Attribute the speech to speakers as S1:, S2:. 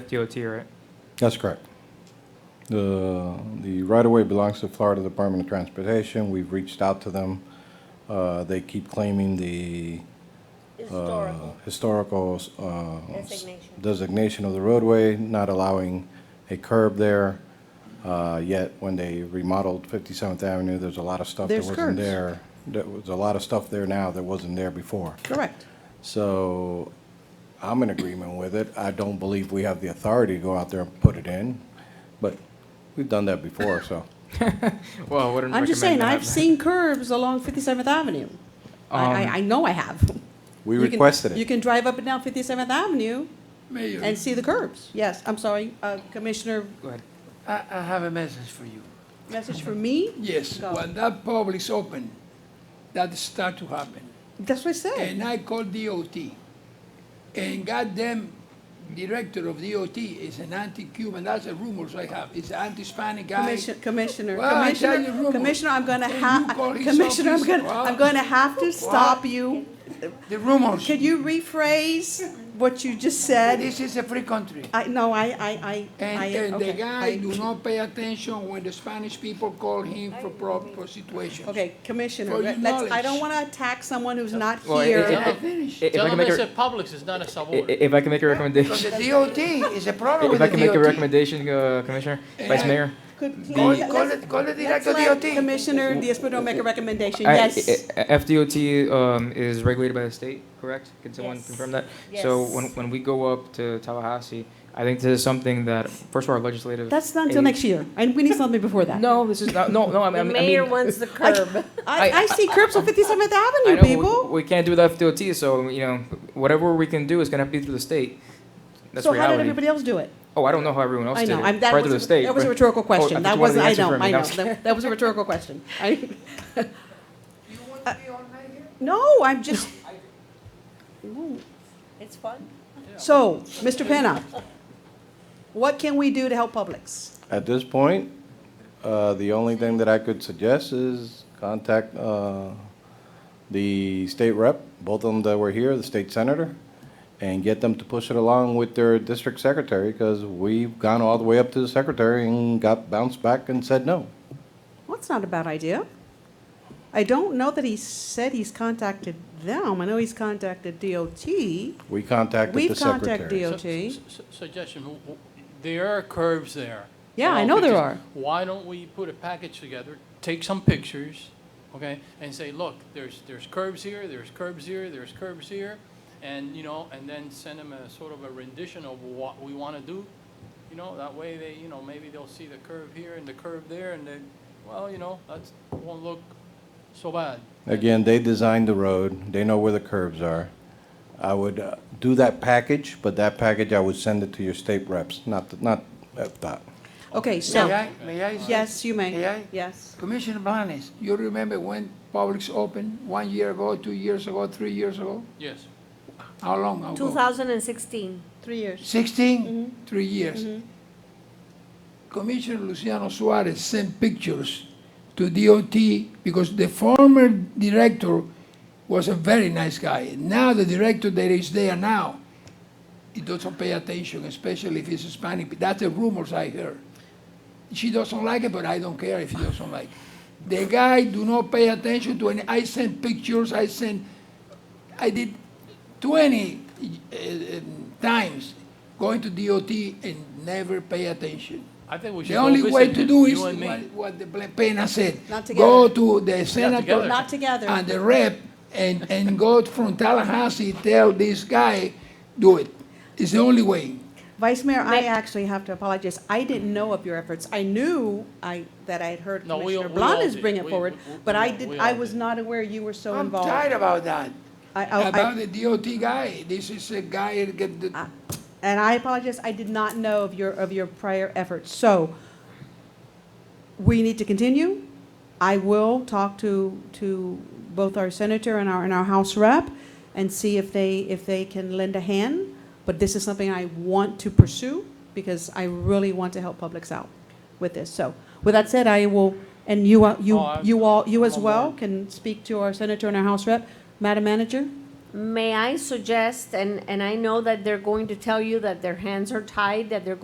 S1: DOT, right?
S2: That's correct. The, the right-of-way belongs to Florida Department of Transportation. We've reached out to them. Uh, They keep claiming the uh,
S3: Historical.
S2: historical uh,
S3: Designation.
S2: designation of the roadway, not allowing a curb there. Uh, Yet, when they remodeled 57th Avenue, there's a lot of stuff that
S4: There's
S2: wasn't
S4: curbs.
S2: there. There was a lot of stuff there now that wasn't there before.
S4: Correct.
S2: So I'm in agreement with it. I don't believe we have the authority to go out there and put it in, but we've done that before, so.
S1: Well, I wouldn't
S4: I'm just saying,
S1: recommend
S4: I've
S1: that.
S4: seen curbs along 57th Avenue. I, I,
S1: Um,
S4: I know I have.
S2: We
S4: You can-
S2: requested
S4: You
S2: it.
S4: can drive up and down 57th Avenue
S5: Mayor,
S4: and see the curbs. Yes, I'm sorry, uh, Commissioner,
S1: Go ahead.
S5: I, I have a message for you.
S4: message for me?
S5: Yes,
S4: Go.
S5: when that pub is open, that start to happen.
S4: That's what I said.
S5: And I call DOT. And goddamn director of DOT is an anti-Cuban, that's the rumors I have, it's anti-Spanish guy.
S4: Commissioner, Commissioner,
S5: Well, I tell you
S4: Commissioner,
S5: rumor.
S4: Commissioner, I'm gonna
S5: Can
S4: have,
S5: you call his
S4: Commissioner, I'm
S5: office?
S4: gonna, I'm
S5: Well-
S4: gonna have to stop you.
S5: The rumors,
S4: Could you rephrase what you just said?
S5: this is a free country.
S4: I, no, I, I, I, I,
S5: And, and the
S4: okay, I-
S5: guy do not pay attention when the Spanish people call him for pro, for situations.
S4: Okay, Commissioner,
S5: For your
S4: let's, I don't
S5: knowledge.
S4: wanna attack someone who's not
S1: Well, it- it-
S4: here.
S5: I finished.
S1: If I
S6: Tell
S1: can
S6: them
S1: make
S6: I
S1: a,
S6: said Publix is not a
S1: i-
S6: subway.
S1: if I can make a
S5: Because
S1: recommendation,
S5: the DOT is a problem with
S1: if I
S5: the
S1: can make a
S5: DOT.
S1: recommendation, uh, Commissioner, Vice
S5: Yeah.
S1: Mayor.
S4: Could-
S1: The-
S5: Call,
S4: let-
S5: call
S4: let's-
S5: the, call the
S4: Let's
S5: director
S4: let
S5: DOT.
S4: Commissioner Diaz-Padrón make a recommendation,
S1: I-
S4: yes.
S1: I- I- FDOT um, is regulated by the state, correct? Can someone
S3: Yes.
S1: confirm that? So
S3: Yes.
S1: when, when we go up to Tallahassee, I think this is something that, first of all, our legislative.
S4: That's not until
S1: aid-
S4: next year, and we need something before that.
S1: Mm. No, this is not, no, no, I mean. I
S3: The
S1: mean-
S3: mayor wants the curb.
S4: I,
S1: I-
S4: I see curbs on 57th
S1: I
S4: Avenue,
S1: know, we-
S4: people.
S1: We can't do the FDOT, so, you know, whatever we can do is gonna be through the state. That's
S4: So how did
S1: reality.
S4: everybody else do it?
S1: Oh, I don't know how everyone else
S4: I
S1: did it.
S4: know, I'm, that
S1: Probably through the
S4: was, a-
S1: state, Oh,
S4: that was a
S1: but-
S4: rhetorical
S1: I
S4: question,
S1: thought
S4: that
S1: you wanted
S4: was,
S1: the
S4: I
S1: answer
S4: know,
S1: from me.
S4: I
S1: No,
S4: know,
S1: I'm just
S4: that that was a rhetorical question. I-
S5: You want to be all night here?
S4: No, I'm just,
S3: It's fun.
S4: so, Mr. Penna, what can we do to help Publix?
S2: At this point, uh, the only thing that I could suggest is contact uh, the state rep, both of them that were here, the state senator, and get them to push it along with their district secretary, because we've gone all the way up to the secretary and got bounced back and said no.
S4: Well, that's not a bad idea. I don't know that he said he's contacted them, I know he's contacted DOT.
S2: We contacted the
S4: We've
S2: secretary.
S4: contacted DOT.
S6: Su- su- su- Suggestion, w- w- there are curves there.
S4: Yeah, I
S6: Well,
S4: know there
S6: because
S4: are.
S6: Why don't we put a package together, take some pictures, okay, and say, look, there's, there's curves here, there's curves here, there's curves here, and, you know, and then send them a sort of a rendition of what we want to do, you know, that way they, you know, maybe they'll see the curve here and the curve there, and then, well, you know, that's, won't look so bad.
S2: Again, they designed the road, they know where the curbs are. I would uh, do that package, but that package, I would send it to your state reps, not, the- not uh, that.
S4: Okay,
S5: May
S4: so,
S5: I, may I? say-
S4: yes, you
S5: May
S4: may,
S5: I?
S4: yes.
S5: Commissioner Blanes, you remember when Publix opened, one year ago, two years ago, three years ago?
S6: Yes.
S5: How long ago?
S3: 2016.
S4: Three years.
S5: Sixteen? Three years. Commissioner Luciano Suarez sent pictures to DOT because the former director was a very nice guy. Now the director that is there now, he doesn't pay attention, especially if he's Hispanic. That's the rumors I heard. She doesn't like it, but I don't care if she doesn't like it. The guy do not pay attention to any, I sent pictures, I sent, I did 20 uh, um, times going to DOT and never pay attention.
S6: I think we should
S5: The
S6: go
S5: only way
S6: visit
S5: to
S6: them,
S5: do is
S6: you and me.
S5: what, what the Ble- Pena said.
S4: Not
S5: Go to the
S6: together.
S5: senator
S4: Not together.
S5: and the rep and, and go from Tallahassee, tell this guy, do it. It's the only way.
S4: Vice Mayor, I
S3: Ma-
S4: actually have to apologize. I didn't know of your efforts. I knew I, that I had heard
S6: No, we all-
S4: Commissioner
S6: we all
S4: Blanes
S6: did.
S4: bring it
S6: We-
S4: forward,
S6: we- we-
S4: but I
S6: we
S4: did,
S6: all
S4: I was
S6: did.
S4: not aware you were so
S5: I'm
S4: involved.
S5: tired about that,
S4: I- I- I-
S5: about the DOT guy. This is a guy that get the,
S4: Ah, And I apologize, I did not know of your, of your prior efforts. So we need to continue. I will talk to, to both our senator and our, and our House rep and see if they, if they can lend a hand. But this is something I want to pursue because I really want to help Publix out with this. So with that said, I will, and you, uh, you,
S6: Oh, I-
S4: you all, you
S6: I'm
S4: as
S6: on
S4: well
S6: board.
S4: can speak to our senator and our House rep. Madam Manager,
S3: May I suggest, and, and I know that they're going to tell you that their hands are tied, that they're